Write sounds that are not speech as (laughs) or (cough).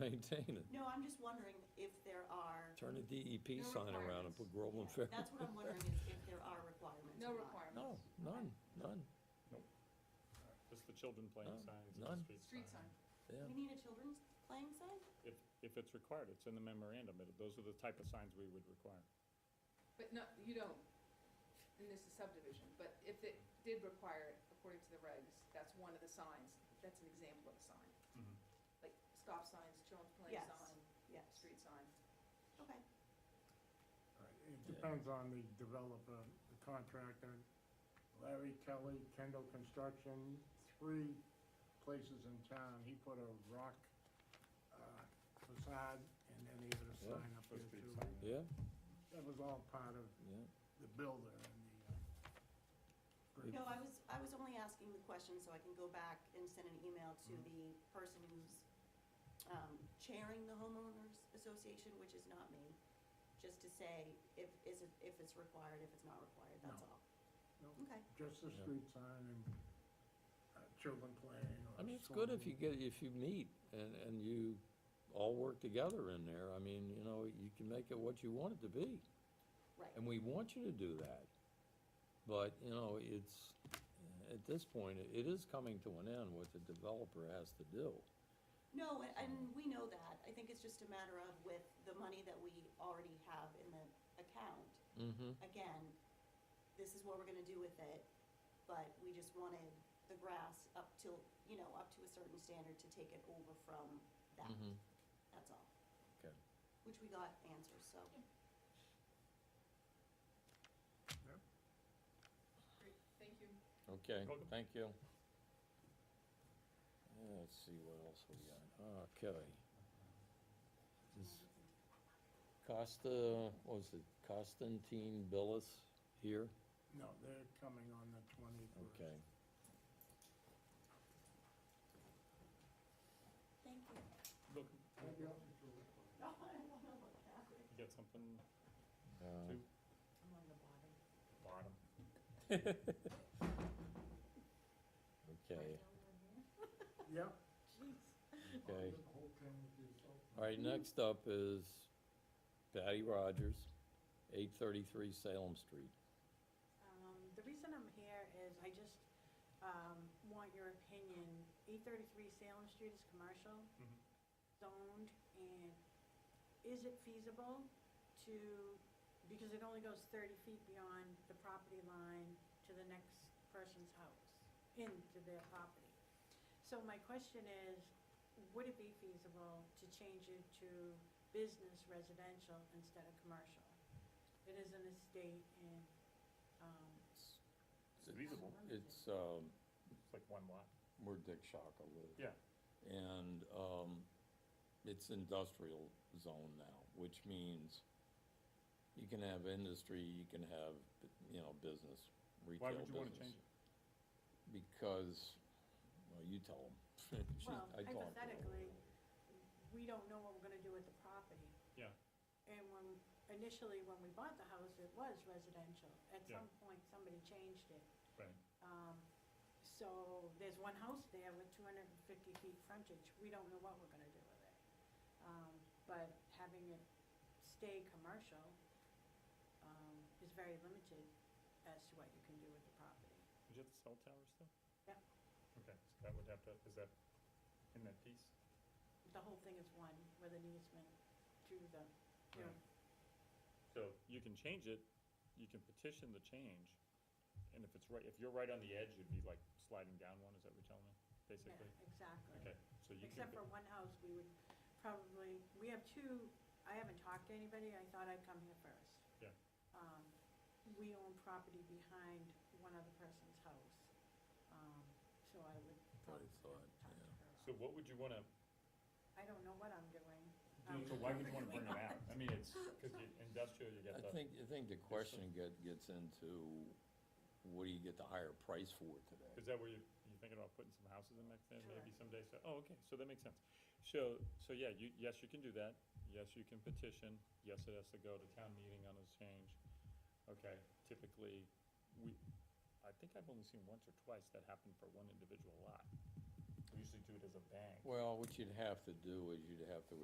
maintain it. No, I'm just wondering if there are, Turn a DEP No sign around and requirements. put Groveland Fair. that's what I'm wondering is if there are requirements. No or not. No, requirements. none, none, Just the children playing None. signs, Oh, None. and the street Street sign. sign. yeah. We need a children's playing sign? If, if it's required, it's in the memorandum, it- those are the type of signs we would require. But no, you don't, and this is subdivision, but if it did require it, according to the regs, that's one of the signs, that's an example of a sign. Mhm. Like stop signs, children's play Yes. sign, Yes. street sign. Okay, It Yeah. depends on the developer, the contractor, Larry Kelly, Kendall Construction, three places in town, he put a rock uh, facade, and then he had a Yeah. sign up there too. Yeah, That was all part of yeah, the builder and the. uh, no, I was, I was only asking the question so I can go back and send an email to Mm-hmm. the person who's, um, chairing the homeowners association, which is not me, just to say if, is it, if it's required, if it's not required, that's No. all. No. Okay, Just the Yeah. street sign and uh, children playing or. I mean, it's good if you swimming. get, if you meet and, and you all work together in there, I mean, you know, you can make it what you want it to be. right. And we want you to do that. But, you know, it's, at this point, it- it is coming to an end what the developer has to do. No, a- and we know that. I think it's just a matter of with the money that we already have in the account, Mm-hmm. again, this is what we're gonna do with it, but we just wanted the grass up till, you know, up to a certain standard to take it over from that. Mhm. That's all. Okay. Which we got answers, so. Great, thank you. Okay, Welcome. thank you. Uh, Let's see what else we got. Okay. Is Costa, what was it, Constantine Billis here? No, they're coming on the twenty-first. Okay. Thank you. Look, No, I don't wanna look at it. you got something uh, Two. bottom? (laughs) Okay, Yep, okay. All right, next up is Patty Rogers, eight thirty-three Salem Street. Um, The reason I'm here is I just um, want your opinion. 833 Salem Street is commercial Mhm. zoned, and is it feasible to, because it only goes 30 feet beyond the property line to the next person's house, into their property. So my question is, would it be feasible to change it to business residential instead of commercial? It is an estate and, um, It's feasible, It's, um, it's like one lot. where Dick Shaka lives. Yeah. And, um, it's industrial zone now, which means you can have industry, you can have, you know, business, retail Why business. would you wanna change it? Because, well, you tell (laughs) them. well, hypothetically, we don't know what we're gonna do with the property. Yeah. And when, initially, when we bought the house, it was residential. At Yeah. some point, somebody changed it. Right. Um, so there's one house there with two hundred and fifty feet frontage. We don't know what we're gonna do with it. Um, but having it stay commercial, um, is very limited as to what you can do with the property. Did you have the cell tower still? Yeah. Okay, so that would have to, is that in that piece? The whole thing is one with an easement to the, you know, So you can change it, you can petition the change, and if it's right, if you're right on the edge, you'd be like sliding down one, is that what you're telling me, yeah, basically? exactly. Okay, so you can, Except for one house, we would probably, we have two, I haven't talked to anybody, I thought I'd come here first. Yeah. Um, we own property behind one other person's house, um, so I would Probably probably thought, talk to her. so what would you wanna, I don't know what I'm doing. Um, so why would you wanna bring them out? I mean, it's, cause you- industrial, you got I the, think, I think the question get, gets into, what do you get the higher price for today? is that where you, you thinking about putting some houses in back there maybe Correct. someday, so, oh, okay, so that makes sense. So, so yeah, you, yes, you can do that, yes, you can petition, yes, it has to go to town meeting on this change. Okay, typically, we, I think I've only seen once or twice that happened for one individual lot. we usually do it as a bank. Well, what you'd have to do is you'd have to